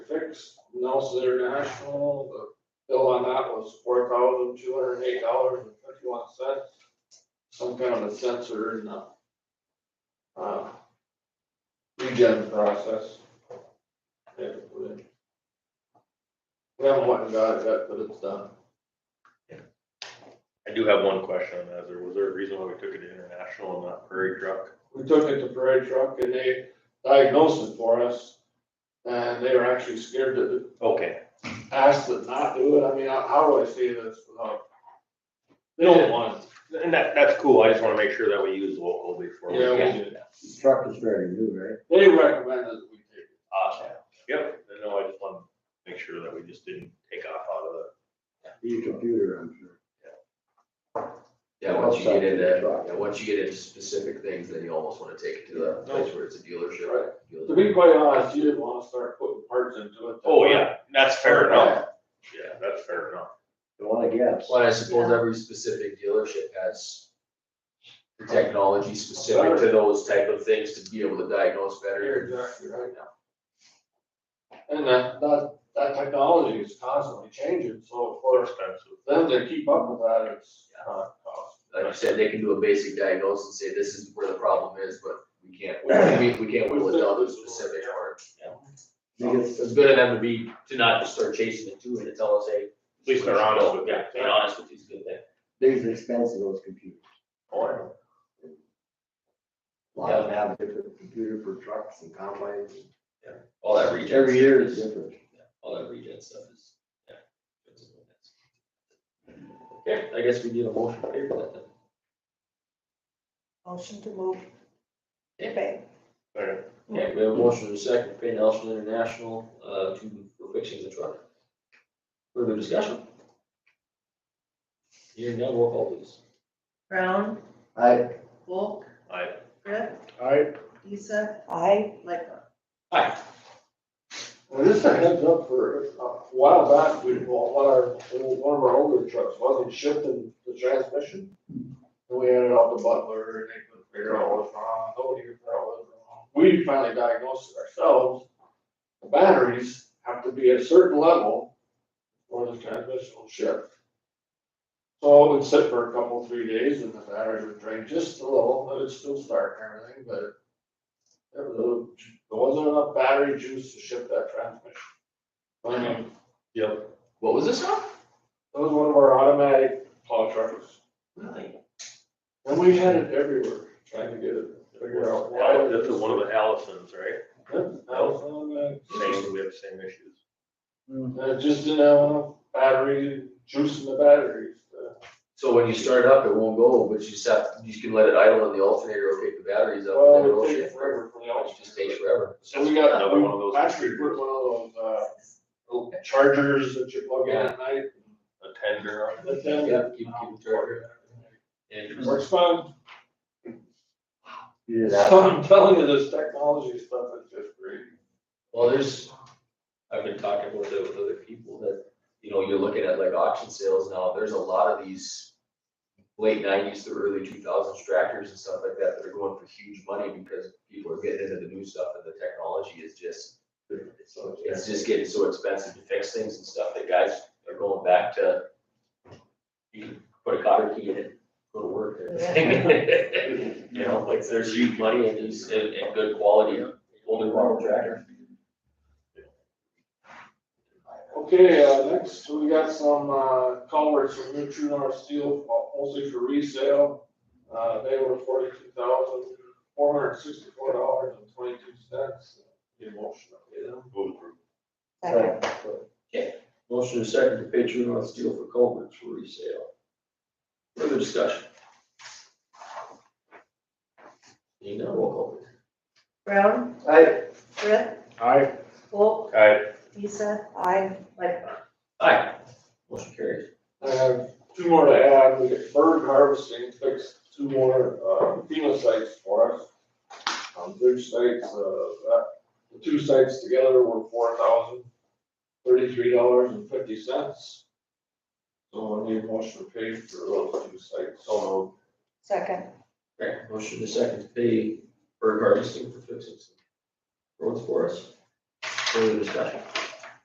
Districts, Nelson International, the bill on that was four thousand two hundred and eight dollars and fifty-one cents. Some kind of a sensor in the, uh, regen process. They had to put in. We haven't went and got it yet, but it's done. I do have one question on that. There- Was there a reason why we took it to international and not prairie truck? we took it to Prairie Truck and they diagnosed it for us. And they were actually scared to Okay, ask to not do it. I mean, how- how do I say this without? They don't want, and that, that's cool. I just wanna make sure that we use local before. we- Yeah, we did. Truck is very new, right? it. they recommended that we take it. Awesome. Yep, I know, I just wanna make sure that we just didn't take off out of it. New computer, I'm sure. Yeah, once you Outside get into, the truck. yeah, once you get into specific things, then you almost wanna take it to the place where it's a dealership. Right. Dealership. To be quite honest, you didn't want to start putting parts into it. Oh, yeah, that's fair enough. Yeah, that's fair enough. Don't wanna guess. Well, I suppose every specific dealership has the technology specific to those type of things to be able to diagnose You're better. exactly right now. And that, that, that technology is constantly changing, so of More course, expensive. then to keep up with that, it's, uh, cost. Like you said, they can do a basic diagnosis and say, this is where the problem is, but we can't, we, we can't whittle it down to a specific part. Biggest, It's good of them to be, to not just start chasing it too and to tell us, hey. At least they're honest with you. Yeah, being honest with you is a good thing. biggest expense of those computers. Oh, I know. A lot of them have different computer for trucks and combines. All that regen. Every stuff year is is- different. yeah, All that regen stuff is, yeah. it's a little mess. Okay, I guess we need a motion to pay for that then. Motion to move. Yeah. Okay. Okay. Okay, we have a motion to second, to pay Nelson International, uh, to, for fixing the truck. Further discussion? Hearing none, roll call please. Brown, I, Volk, I, Brett, Alright. Lisa, Aye. Lightfoot. Aye. Well, this is a heads up for, a while back, we, well, one of our, one of our older trucks wasn't shifting the transmission. And we had it out to Butler, and they couldn't figure out what was wrong, nobody could figure out what was wrong. We finally diagnosed it ourselves. The batteries have to be at a certain level or the transmission will shift. So it would sit for a couple, three days, and the batteries would drain just a little, but it'd still start and everything, but there was, there wasn't enough battery juice to ship that transmission. I mean, yep, What was this on? that was one of our automatic plow trucks, Really? and we had it everywhere, trying to get it, figure out why. that's one of the Allisons, right? Yep, that was on that. Same, we have the same issues. And Mm-hmm. it just didn't have enough battery, juice in the batteries, uh, So when you start up, it won't go, but you just have, you can let it idle in the alternator or pick the batteries up and then well, it'll it takes shift. forever for the It others. just takes forever. So we got, Another one of those we actually put computers. one of those, uh, little chargers that you plug in at night, A tender on it. but then. Yeah, keep, keep the charger. Interesting. Works fine. you did that. So I'm telling you, this technology stuff is just great. Well, there's, I've been talking with, with other people that, you know, you're looking at like auction sales now, there's a lot of these late nineties to early two thousands tractors and stuff like that that are going for huge money because people are getting into the new stuff and the technology is just, it's just getting so expensive to fix things and stuff that guys are going back to, you can put a cotter key in it, go to work and everything. You know, like there's huge money in these, in, in good quality, older model tractors. Okay, uh, next, we got some, uh, culverts from New True North Steel, mostly for resale. Uh, they were forty-two thousand, four hundred sixty-four dollars and twenty-two cents. Need a motion to pay them? Move through. Second. Motion is second to pay true north steel for culverts for resale. Further discussion? Seeing none, roll call please. Brown, I, Brett, Aye. Volk, Aye. Lisa, Aye. Lightfoot. Aye. Motion carries. I have two more to add, we get bird harvesting, fixed two more, uh, FEMA sites for us. Um, bridge sites, uh, that, the two sites together were four thousand thirty-three dollars and fifty cents. So I need a motion to pay for those two sites, so moved. Second. Okay, motion is second to pay Berg harvesting for fixing some roads for us. Further discussion?